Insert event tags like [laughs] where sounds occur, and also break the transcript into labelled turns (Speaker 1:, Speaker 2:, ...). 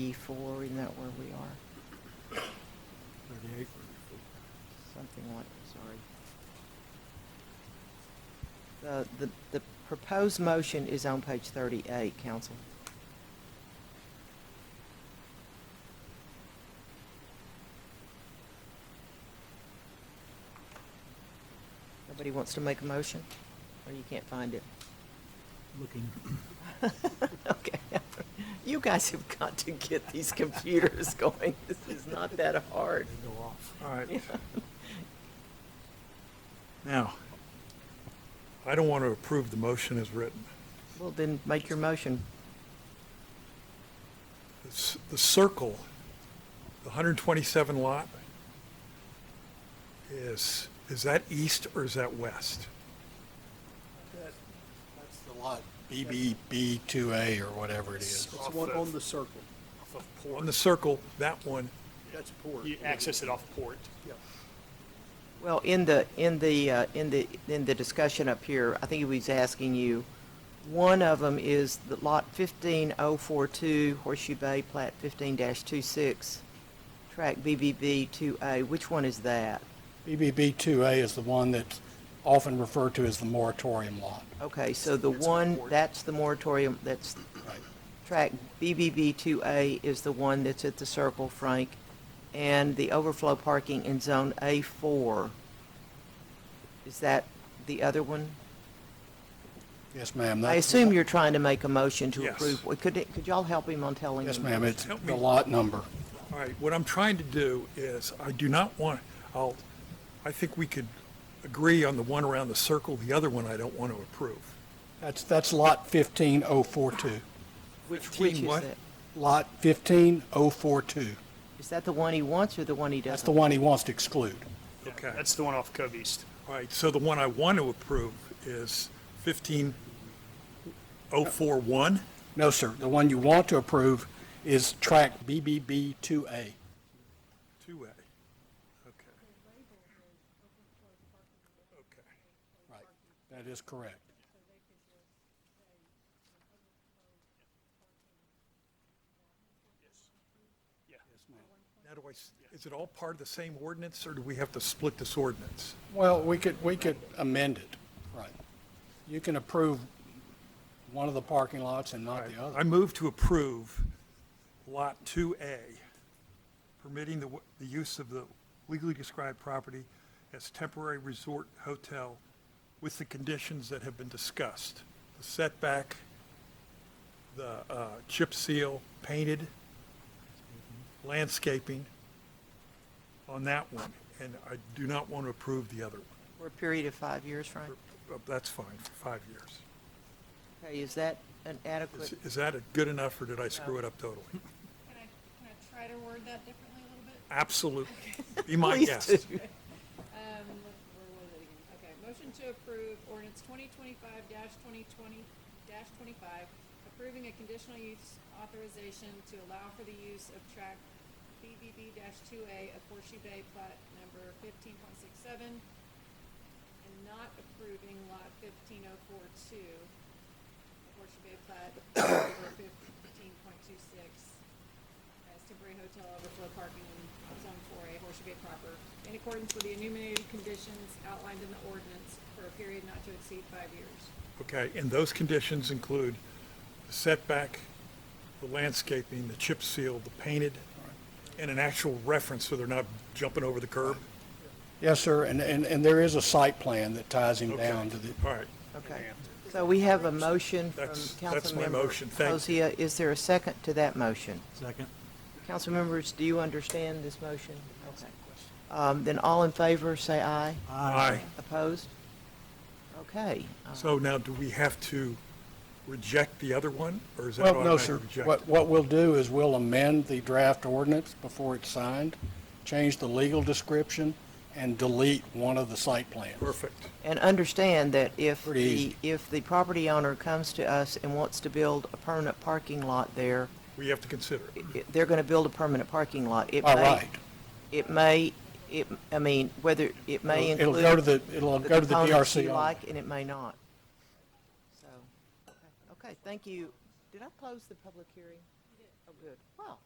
Speaker 1: 34, isn't that where we are?
Speaker 2: 38.
Speaker 1: Something like, sorry. The, the, the proposed motion is on page 38, council. Nobody wants to make a motion? Or you can't find it?
Speaker 2: Looking.
Speaker 1: [laughs] Okay. You guys have got to get these computers [laughs] going. This is not that
Speaker 2: They
Speaker 1: hard. [laughs]
Speaker 2: go off. All right.
Speaker 1: Okay.
Speaker 2: Now, I don't want to approve the motion as written.
Speaker 1: Well, then make your motion.
Speaker 2: It's The circle, the 127 lot, is, is that east or is that west?
Speaker 3: That's the lot, BBB2A or whatever it is.
Speaker 4: It's the one on the circle.
Speaker 5: off of
Speaker 2: On
Speaker 5: Port.
Speaker 2: the circle, that one,
Speaker 4: That's Port.
Speaker 5: You access it off Port.
Speaker 4: Yeah.
Speaker 1: Well, in the, in the, uh, in the, in the discussion up here, I think he was asking you, one of them is the lot 15042 Horseshoe Bay, plat 15-26, track BBB 2A. Which one is that?
Speaker 3: BBB2A is the one that's often referred to as the moratorium lot.
Speaker 1: Okay, so the
Speaker 5: It's on
Speaker 1: one,
Speaker 5: board.
Speaker 1: that's the moratorium, that's track BBB 2A is the one that's at the circle, Frank, and the overflow parking in Zone A4. Is that the other one?
Speaker 3: Yes, ma'am.
Speaker 1: I
Speaker 3: that's-
Speaker 1: assume you're trying to make a motion to
Speaker 2: Yes.
Speaker 1: approve. Well, Could, it- could y'all help him on telling?
Speaker 3: Yes,
Speaker 1: him?
Speaker 3: ma'am, it's
Speaker 2: Help
Speaker 3: the
Speaker 2: me.
Speaker 3: lot number.
Speaker 2: all right, what I'm trying to do is, I do not want, I'll, I think we could agree on the one around the circle, the other one I don't want to approve.
Speaker 3: That's, that's lot 15042.
Speaker 1: Which,
Speaker 2: 15
Speaker 1: which is
Speaker 2: what?
Speaker 1: that?
Speaker 3: Lot 15042.
Speaker 1: Is that the one he wants or the one he
Speaker 3: That's the
Speaker 1: doesn't?
Speaker 3: one he wants to exclude.
Speaker 5: Yeah,
Speaker 2: Okay.
Speaker 5: That's the one off Cove East.
Speaker 2: All right, so the one I want to approve is 15041?
Speaker 3: No, sir, the one you want to approve is tract BBB2A.
Speaker 2: 2A. Okay. Okay.
Speaker 3: Right, that is correct.
Speaker 2: Now, do I, s- is it all part of the same ordinance, or do we have to split this ordinance?
Speaker 3: Well, we could, we could amend it, right. You can approve one of the parking lots and not the
Speaker 2: I
Speaker 3: other.
Speaker 2: move to approve Lot 2A, permitting the, w- the use of the legally described property as temporary resort hotel with the conditions that have been discussed. The setback, the uh, chip seal painted, landscaping on that one, and I do not want to approve the other one.
Speaker 1: For a period of five years, Frank?
Speaker 2: But That's fine, for five years.
Speaker 1: Okay, is that an
Speaker 2: Is-
Speaker 1: adequate?
Speaker 2: Is that a good enough, or did I screw it up totally?
Speaker 6: Can I, can I try to word that differently a little bit?
Speaker 2: Absolutely. Be my
Speaker 1: Please
Speaker 2: guest.
Speaker 1: do.
Speaker 6: Um, where was it again? Okay, motion to approve ordinance twenty twenty-five twenty twenty twenty-five, approving a conditional use authorization to allow for the use of track BBB two A of Horseshoe Bay plat number fifteen point six seven, and not approving lot fifteen oh four two, Horseshoe Bay plat number fifteen point two six, as temporary hotel overflow parking in zone four A Horseshoe Bay proper in accordance with the enumerated conditions outlined in the ordinance for a period not to exceed five years.
Speaker 2: Okay, and those conditions include the setback, the landscaping, the chip seal, the painted, and an actual reference so they're not jumping over the curb?
Speaker 3: Yes, sir, and, and, and there is a site plan that ties him
Speaker 2: Okay.
Speaker 3: down to the,
Speaker 2: All right,
Speaker 1: Okay. So we have a motion from
Speaker 2: That's- that's my
Speaker 1: Councilmember
Speaker 2: motion. Thank you.
Speaker 1: Hosea. Is there a second to that motion?
Speaker 2: Second.
Speaker 1: Council members, do you understand this motion? Okay. Um, Then all in favor, say aye.
Speaker 2: Aye.
Speaker 1: Opposed? Okay. uh,
Speaker 2: So now, do we have to reject the other one, or is that
Speaker 3: well, no,
Speaker 2: automatically
Speaker 3: sir.
Speaker 2: rejected?
Speaker 3: What, what we'll do is we'll amend the draft ordinance before it's signed, change the legal description, and delete one of the site plans.
Speaker 2: Perfect.
Speaker 1: And understand that if
Speaker 3: Pretty
Speaker 1: the,
Speaker 3: easy.
Speaker 1: if the property owner comes to us and wants to build a permanent parking lot there,
Speaker 2: We have to consider it.
Speaker 1: i- i- they're going to build a permanent parking lot. It
Speaker 3: All
Speaker 1: may-
Speaker 3: right.
Speaker 1: It may, it, I mean, whether, it may
Speaker 3: It'll
Speaker 1: include.
Speaker 3: go to the, it'll go to the
Speaker 1: components
Speaker 3: DRC.
Speaker 1: you
Speaker 3: only.
Speaker 1: like, and it may not. So, okay, okay, thank you. Did I close the public hearing? Oh, good. Wow,